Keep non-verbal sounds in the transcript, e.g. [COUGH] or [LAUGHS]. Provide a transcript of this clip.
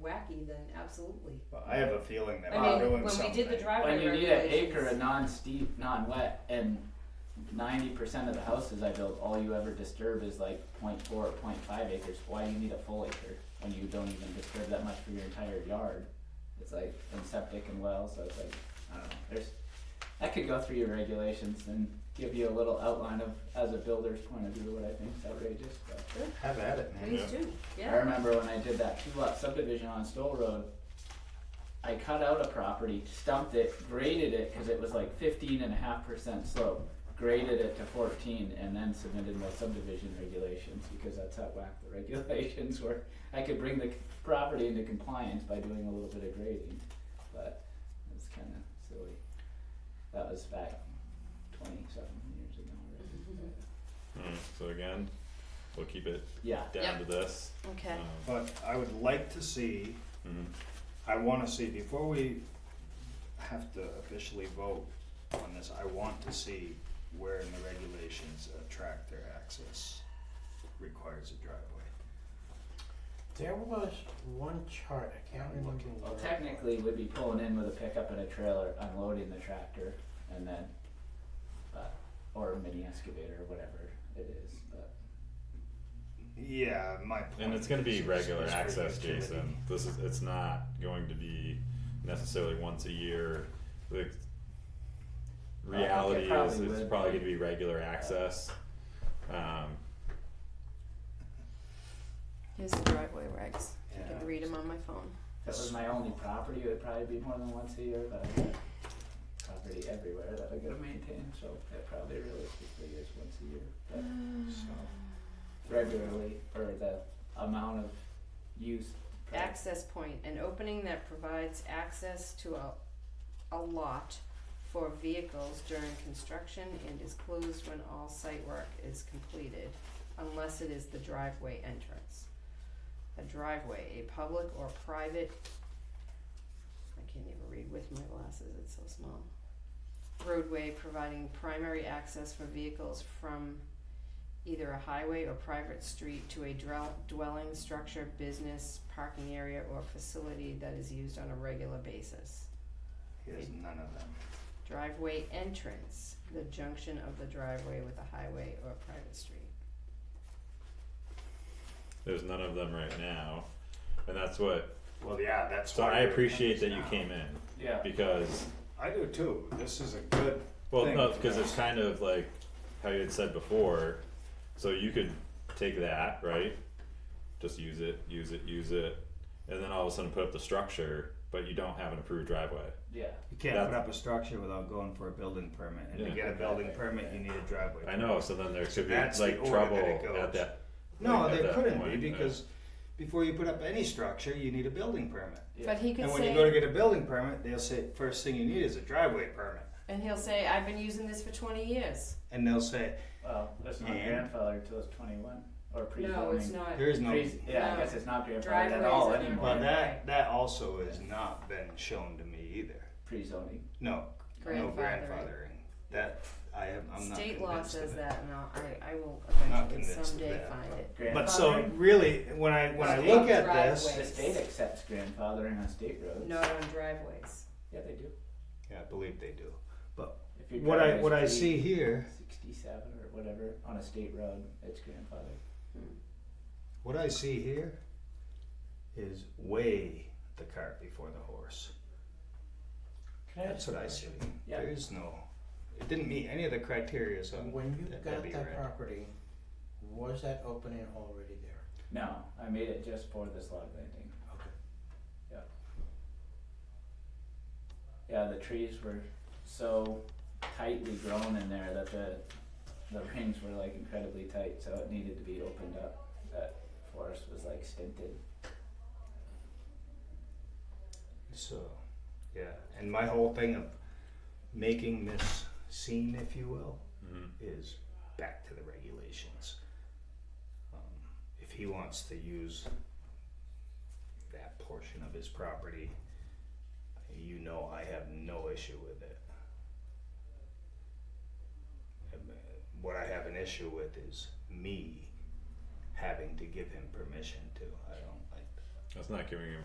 wacky, then absolutely. Well, I have a feeling that I we're mean, doing when something. we did the When driveway you need an regulations. acre of non-steep, non-wet, and ninety percent of the houses I build, all you ever disturb is like 0.4 or 0.5 acres, why do you need a full acre? When you don't even disturb that much for your entire yard, it's like, and septic and wells, so it's like, I don't know, there's, I could go through your regulations and give you a little outline of, as a builder's point of view, what I think is outrageous, but. Have at it, man. These two, I yeah, remember when I did that two lot subdivision on Stoll Road, I cut out a property, stumped it, graded it, cause it was like fifteen and a half percent slope. Graded it to fourteen and then submitted my subdivision regulations, because that's how whack the [LAUGHS] regulations were. I could bring the c- property into compliance by doing a little bit of grading, but it's kinda silly. That was back twenty-seven years ago already, but, Mm, so again, we'll keep it yeah, down to this. Okay. Um, But I would like to see, mhm. I wanna see, before we have to officially vote on this, I want to see where in the regulations a tractor access requires a driveway. There was one chart, I can't remember where. Well, Oh, technically, we'd be pulling in with a pickup and a trailer, unloading the tractor, and then, but, or a mini excavator, whatever it is, but. Yeah, my point. And it's gonna is be it's- regular it's access, regular Jason. This is, it's not going to be necessarily once a year. The I think it reality is, probably it's would. probably gonna be regular access. Um, Here's the driveway regs. I Yeah. can read them on my phone. If it was my only property, it would probably be more than once a year, but I got property everywhere that I gotta maintain, so it probably realistically is once a year, but So, regularly, or the amount of use. per- Access point, an opening that provides access to a, a lot for vehicles during construction and is closed when all site work is completed, unless it is the driveway entrance. A driveway, a public or private, I can't even read with my glasses, it's so small. Roadway providing primary access for vehicles from either a highway or private street to a drell- dwelling, structure, business, parking area, or facility that is used on a regular basis. He has none of them. Driveway entrance, the junction of the driveway with a highway or a private street. there's none of them right now. And that's what, Well, yeah, that's so why. I we're appreciate that doing you this came now. in, Yeah, because I do too. This is a good Well, thing no, for because us. it's kind of like how you had said before. So you could take that, right? Just use it, use it, use it, and then all of a sudden put up the structure, but you don't have an approved driveway. yeah, You can't That's- put up a structure without going for a building permit, and Yeah. to get a building permit, you need a driveway. I know, so then there could be That's like the order that trouble it at goes. that. No, at there that couldn't be point, yeah. because before you put up any structure, you need a building permit. But he could And when you go to say, get a building permit, they'll say first thing you need is a driveway permit, and he'll say, I've been using this for twenty years. and they'll say well, that's not And- grandfathered till it's twenty-one, or pre-zoning. no, it's not, there is no. Pre- yeah, I No. guess it's not grandfathered Driveways at all and everything. anymore. Well, that that also has not been shown to me either. Pre-zoning. No, no Grandfathering. grandfathering. That I am. I'm not State law convinced of says it. that, and I'll, I, I will Not eventually convinced of someday that. find it. But so really, when I when I look at this, The state accepts grandfathering on state roads. Not on driveways. Yeah, they do. yeah, I believe they do. If your What I driveway's what I pre- see here, Sixty-seven or whatever, on a state road, it's grandfathered. what I see here, is weigh the cart before the horse. Can That's what I see. Yeah. There is no, it didn't meet any of the criteria, so. When you that got Debbie that read. property, was that opening already there? No, I made it just for this log landing. Okay. Yeah, the trees were so tightly grown in there that the, the rings were like incredibly tight, so it needed to be opened up. That forest was like stinted. So, yeah, and my whole thing of making this scene, if you will, Mhm. is back to the regulations. Um, If he wants to use that portion of his property, you know I have no issue with it. Um, uh, What I have an issue with is me having to give him permission to, I don't like that. That's not giving him